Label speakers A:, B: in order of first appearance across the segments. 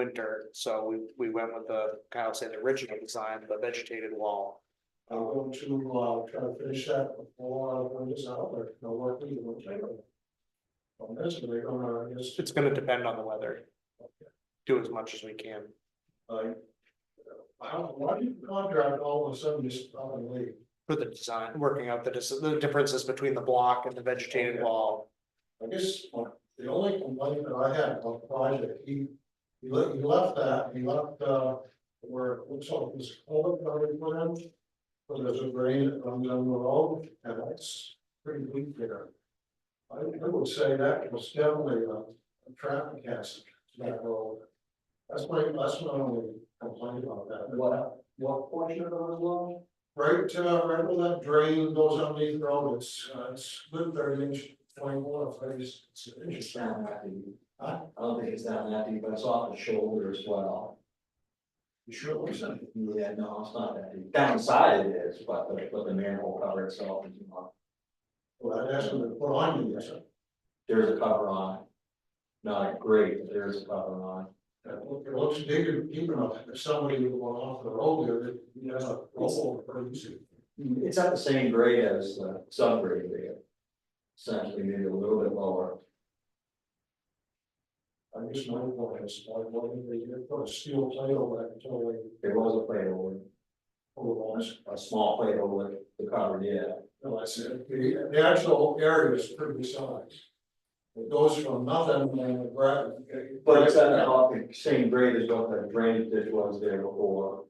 A: winter, so we, we went with the, Kyle said, the original design, the vegetated wall.
B: I'm going to, uh, try to finish that before I bring this out, but no work either, we'll take it. On this, they're gonna, I guess,
A: It's gonna depend on the weather. Do as much as we can.
B: like. I don't, why do you contract all of a sudden just up and leave?
A: For the design, working out the, dis- the differences between the block and the vegetated wall.
B: I guess my- the only complaint that I had about the project, he, he left, he left that, he left, uh, where it looks like this culvert that we put in. But there's a drain that runs down the road, and that's pretty weak there. I, I would say that was definitely a, a traffic hazard to that road. That's my, that's my only complaint about that. What, what portion of the road? Right, uh, right where that drain goes underneath the road, it's, uh, it's good thirty inch twenty-one, thirty, it's an
C: It's
B: inch.
C: down that deep.
B: Huh?
C: I don't think it's down that deep, but it's off the shoulder as well.
B: You sure it looks like,
C: Yeah, no, it's not that deep. Downside it is, but the, but the manhole cover itself is not.
B: well, that's what they put on you, that's it.
C: There's a cover on it. Not great, but there's a cover on it.
B: That look- It looks bigger, deep enough, if somebody were going off the road there, that you have a roll over pretty soon. Mm-hmm.
C: It's at the same grade as the subgrade there. Essentially, maybe a little bit lower.
B: I guess my point is, I wanted to get- put a steel plate over that until they
C: There was a plate over, it,
B: pull it on.
C: a small plate over it, the cover, yeah.
B: No, I said, the, the actual area is pretty size. It goes from nothing and the gravel.
C: But it's at the off the same grade as what the drainage ditch was there before.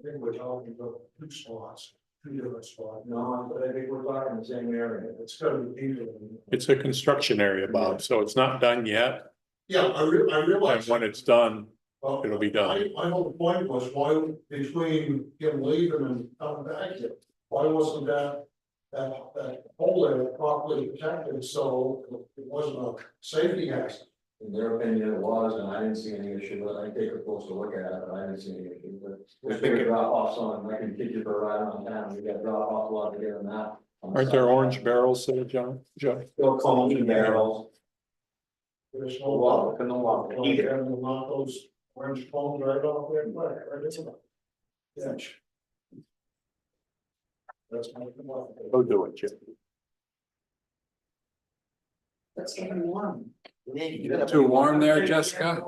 B: I think we're talking about two spots, two different spots.
C: No, but I think we're talking the same area.
B: It's gotta be deeper than.
D: It's a construction area, Bob, so it's not done yet,
B: Yeah, I re- I
D: and
B: realize.
D: when it's done,
B: Well,
D: it'll be done.
B: My, my whole point was, why, between him leaving and coming back here, why wasn't that? That, that hole there properly protected, so it wasn't a safety hazard,
C: In their opinion, it was, and I didn't see any issue, with it. I think we're supposed to look at it, but I didn't see any issue, with it. There's big drop offs on, like in Kitchener, right on town, we got drop off a lot bigger than that. on the
D: aren't there
C: side.
D: orange barrels there, John, Joe?
C: Still cones and barrels,
B: there's
C: a
B: no
C: lot,
B: water.
C: look in the water.
B: Either and we'll knock those orange cones right off there, right, right, it's about. Yeah. That's my.
D: Go Oh, do it, Jim.
E: That's getting warm.
F: Too warm there, Jessica?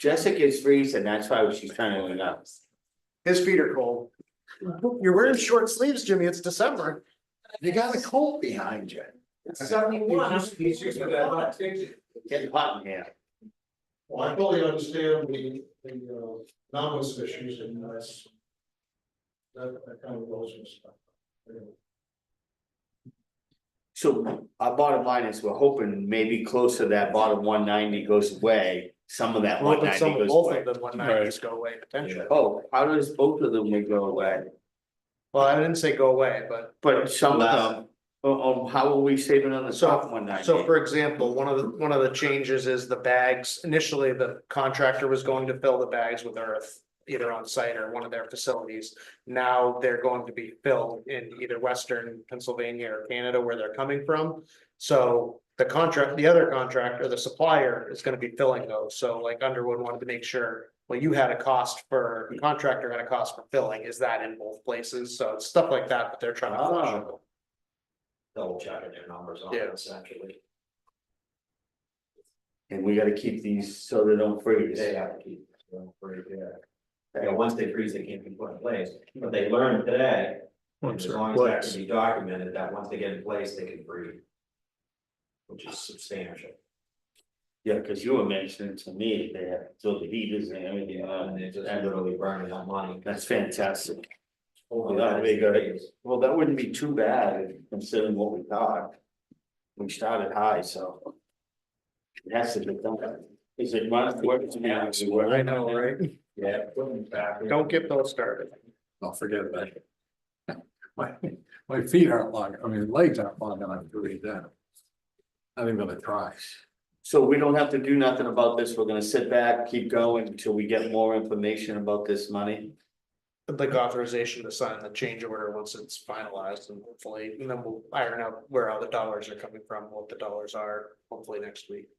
G: Jessica's freezing, that's why she's trying to, uh,
A: His feet are cold. You're wearing short sleeves, Jimmy. It's December.
F: You got a colt behind you.
E: It's seventy-one. I'm-
G: getting hot in here.
B: Well, I fully understand the, the, uh, nominal issues and that's. That, that kind of goes and stuff. Anyway,
G: So our bottom line is, we're hoping maybe closer to that bottom one ninety goes away, some of that one
A: Hoping
G: ninety
A: some,
G: goes
A: both of
G: away.
A: them one night just go away potentially.
G: Oh, how does both of them would go away?
A: Well, I didn't say go away, but
G: But some of them, oh, oh, how are we saving on the
A: So-
G: top one ninety?
A: So for example, one of the, one of the changes is the bags, initially the contractor was going to fill the bags with earth. Either on site or one of their facilities, now they're going to be filled in either western Pennsylvania or Canada where they're coming from. So the contract, the other contractor, the supplier is gonna be filling those, so like Underwood wanted to make sure. Well, you had a cost for, the contractor had a cost for filling, is that in both places, so it's stuff like that, but they're trying
C: Ah.
A: to. flush it.
C: Double checking their numbers on
A: Yeah.
C: it essentially,
G: And we gotta keep these so they don't freeze.
C: they have to keep. their own free, Yeah, Yeah, once they freeze, they can't be put in place, but they learned today, And As long as that can be documented, that once they get in place, they can breathe. Which is substantial,
G: Yeah, cause you were mentioning to me, they have, so the heaters and everything,
C: and
G: on
C: they're just
G: and
C: literally burning that money.
G: that's fantastic.
C: Over
G: Yeah,
C: that
G: they got it.
C: days.
G: Well, that wouldn't be too bad considering what we thought. We started high, so. It has to be done. Is it run? works now?
A: I know, right?
C: Yeah, put them back. in.
A: Don't get those started.
F: I'll forget about it. My, my feet aren't long, I mean, legs aren't long enough to read that. I think I'm gonna try.
G: So we don't have to do nothing about this. We're gonna sit back, keep going until we get more information about this money.
A: Like authorization to sign the change order once it's finalized and hopefully, and then we'll iron out where all the dollars are coming from, what the dollars are, hopefully next week.